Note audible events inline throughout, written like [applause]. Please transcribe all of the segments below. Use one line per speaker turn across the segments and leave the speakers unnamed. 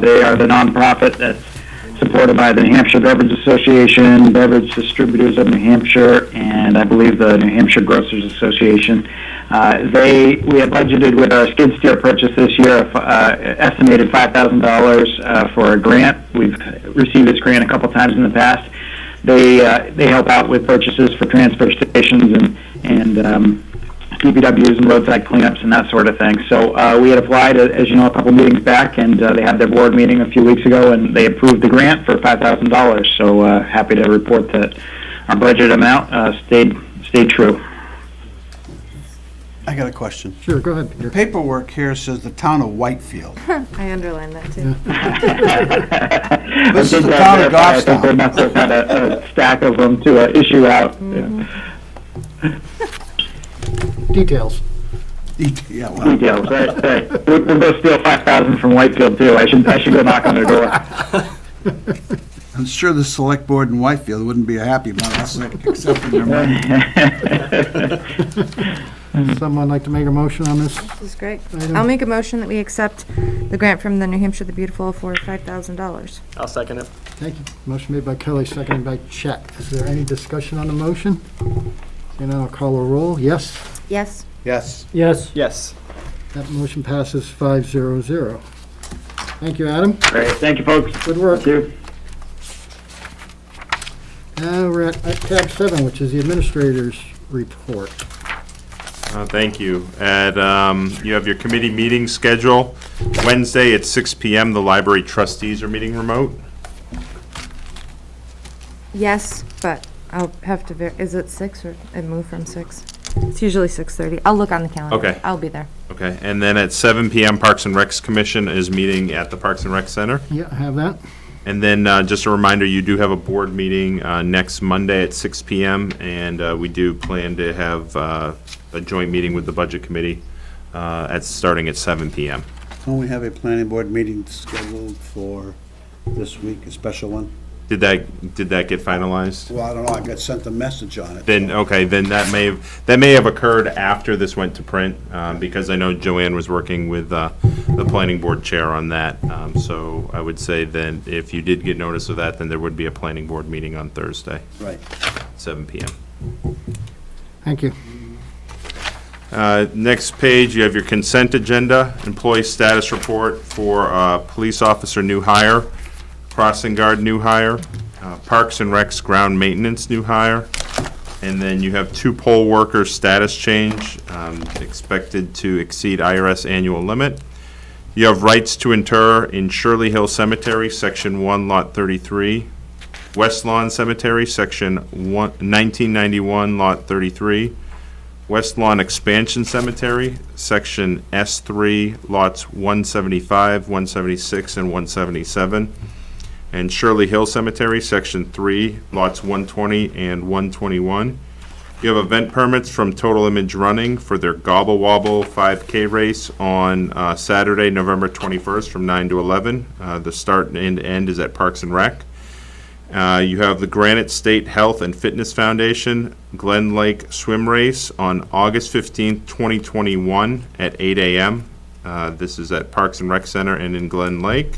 They are the nonprofit that's supported by the New Hampshire Beverage Association, Beverage Distributors of New Hampshire, and I believe the New Hampshire Grocers Association. Uh, they we had budgeted with our skid steer purchase this year, uh, estimated five thousand dollars uh, for a grant. We've received this grant a couple times in the past. They uh, they help out with purchases for transfer stations and and um, DPWs and roadside cleanups and that sort of thing. So uh, we had applied, uh, as you know, a couple meetings back, and uh, they had their board meeting a few weeks ago, and they approved the grant for five thousand dollars. So uh, happy to report that our budget amount uh, stayed stayed true.
I got a question.
Sure, go ahead, Peter.
Paperwork here says the town of Whitefield. [laughs]
I underlined that too.
this
This is the town of
I think they
Goffstown.
must have had a, a stack of them to uh, issue out. Yeah.
Details.
Yeah, well,
Details, right? right. We'll, we'll go steal five thousand from Whitefield too. I should I should go knock on their door. [laughs]
I'm sure the select board in Whitefield wouldn't be happy about us accepting
[laughs]
their money.
Someone like to make a motion on this?
This is great.
Item.
I'll make a motion that we accept the grant from the New Hampshire the Beautiful for five thousand dollars.
I'll second it.
Thank you. Motion made by Kelly, seconded by Chet. Is there any discussion on the motion? And I'll call a roll. Yes,
Yes.
Yes.
Yes,
Yes.
that motion passes five zero zero. Thank you, Adam.
Great, thank you, folks.
Good work.
Thank you.
Now we're at at tab seven, which is the administrator's report.
Uh, Thank you. And um, you have your committee meeting schedule. Wednesday at 6 PM, the library trustees are meeting remote.
Yes, but I'll have to, ver- is it six or, it moved from six? It's usually six thirty. I'll look on the calendar.
Okay.
I'll be there.
Okay, and then at 7 PM, Parks and Recs Commission is meeting at the Parks and Rec Center.
Yeah, I have that.
And then uh, just a reminder, you do have a board meeting uh, next Monday at 6 PM, and uh, we do plan to have uh, a joint meeting with the Budget Committee uh, at, starting at 7 PM.
Don't we have a planning board meeting scheduled for this week, a special one?
Did that, did that get finalized?
Well, I don't know, I got sent a message on it.
Then, okay, then that may have, that may have occurred after this went to print, um, because I know Joanne was working with, uh, the planning board chair on that. Um, so I would say then, if you did get notice of that, then there would be a planning board meeting on Thursday,
Right.
seven PM.
Thank you.
Uh, next page, you have your consent agenda, employee status report for, uh, police officer new hire, crossing guard new hire, uh, parks and recs ground maintenance new hire, and then you have two poll workers status change, um, expected to exceed IRS annual limit. You have rights to inter in Shirley Hill Cemetery, section one, lot thirty-three, West Lawn Cemetery, section one, nineteen ninety-one, lot thirty-three, West Lawn Expansion Cemetery, Section S3, lots 175, 176, and 177, and Shirley Hill Cemetery, Section 3, lots 120 and 121. You have event permits from Total Image Running for their Gobble Wobble 5K race on uh, Saturday, November 21st, from 9 to 11. Uh, The start and end is at Parks and Rec. Uh, you have the Granite State Health and Fitness Foundation Glen Lake Swim Race on August 15th, 2021 at 8 a.m. Uh, this is at Parks and Rec Center and in Glen Lake.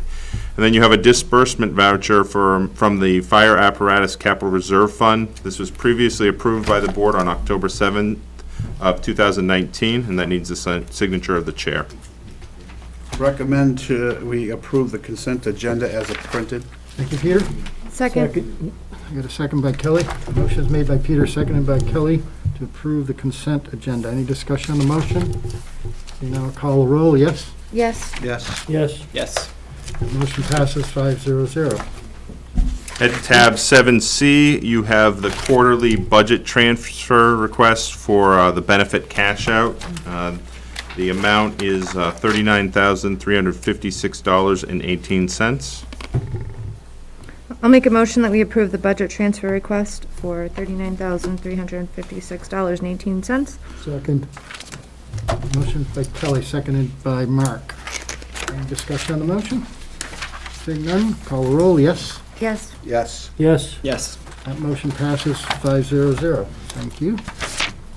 And then you have a disbursement voucher for, from the Fire Apparatus Capital Reserve Fund. This was previously approved by the board on October 7th of 2019, and that needs the si- signature of the chair.
Recommend to, we approve the consent agenda as it printed.
Thank you, Peter.
Second.
I got a second by Kelly. Motion is made by Peter, seconded by Kelly to approve the consent agenda. Any discussion on the motion? You now call a roll, yes?
Yes.
Yes.
yes,
Yes.
Motion passes five zero zero.
At tab seven C, you have the quarterly budget transfer request for uh, the benefit cash out. Uh, The amount is uh, thirty-nine thousand, three hundred fifty-six dollars and eighteen cents.
I'll make a motion that we approve the budget transfer request for thirty-nine thousand, three hundred and fifty-six dollars and eighteen cents.
Second. Motion by Kelly, seconded by Mark. Any discussion on the motion? Seeing none, call a roll, yes?
Yes.
Yes.
yes.
Yes.
That motion passes five zero zero. Thank you.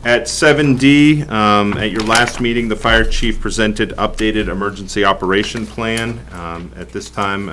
At 7D, um, at your last meeting, the fire chief presented updated emergency operation plan. Um, At this time,